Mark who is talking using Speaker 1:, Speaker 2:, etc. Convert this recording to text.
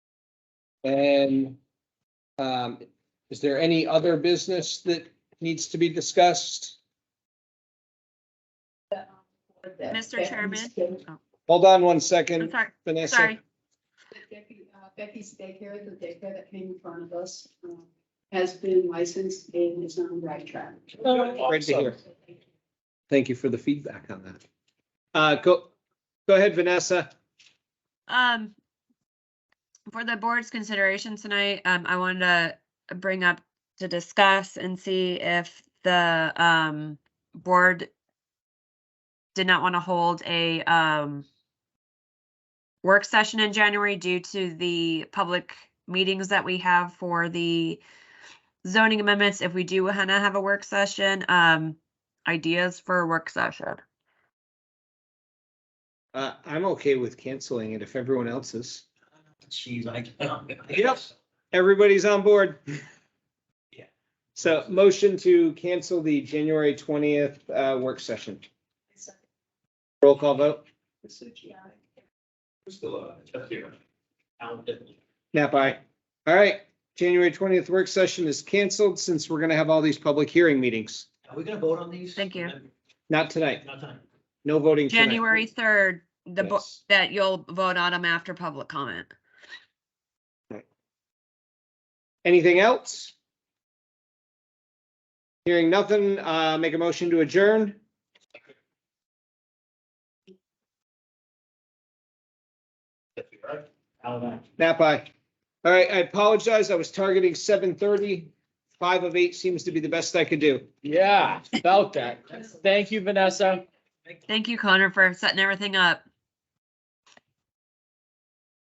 Speaker 1: And um, is there any other business that needs to be discussed?
Speaker 2: Mr.
Speaker 3: Becky's
Speaker 2: Chairman?
Speaker 3: day-
Speaker 1: Hold on one
Speaker 2: I'm
Speaker 1: second,
Speaker 2: sorry,
Speaker 1: Vanessa.
Speaker 2: sorry.
Speaker 3: Becky- uh, Becky's daycare, the daycare that came in front of us, uh, has been licensed and is on the right track.
Speaker 1: Great to hear. Thank you for the feedback on that. Uh, go, go ahead, Vanessa.
Speaker 2: Um, for the board's consideration tonight, um, I wanted to bring up to discuss and see if the, um, board did not want to hold a, um, work session in January due to the public meetings that we have for the zoning amendments. If we do want to have a work session, um, ideas for a work session.
Speaker 1: Uh, I'm okay with canceling it if everyone else is.
Speaker 4: Jeez, I.
Speaker 1: Yep. Everybody's on board.
Speaker 4: Yeah.
Speaker 1: So motion to cancel the January twentieth, uh, work session. Roll call vote.
Speaker 3: Masucci, aye.
Speaker 4: We're Still uh, up here. Alan Pittman.
Speaker 1: Nap aye. All right, January twentieth work session is canceled since we're gonna have all these public hearing meetings.
Speaker 4: Are we gonna vote on these?
Speaker 2: Thank you.
Speaker 1: Not tonight.
Speaker 4: Not time.
Speaker 1: No voting tonight.
Speaker 2: January third, the board.
Speaker 1: Yes.
Speaker 2: that you'll vote on them after public comment.
Speaker 1: Anything else? Hearing nothing, uh, make a motion to adjourn.
Speaker 4: That's right. Alan, aye.
Speaker 1: Nap aye. All right, I apologize. I was targeting seven thirty. Five of eight seems to be the best I could do.
Speaker 5: Yeah, about that. Thank you, Vanessa.
Speaker 2: Thank you, Connor, for setting everything up.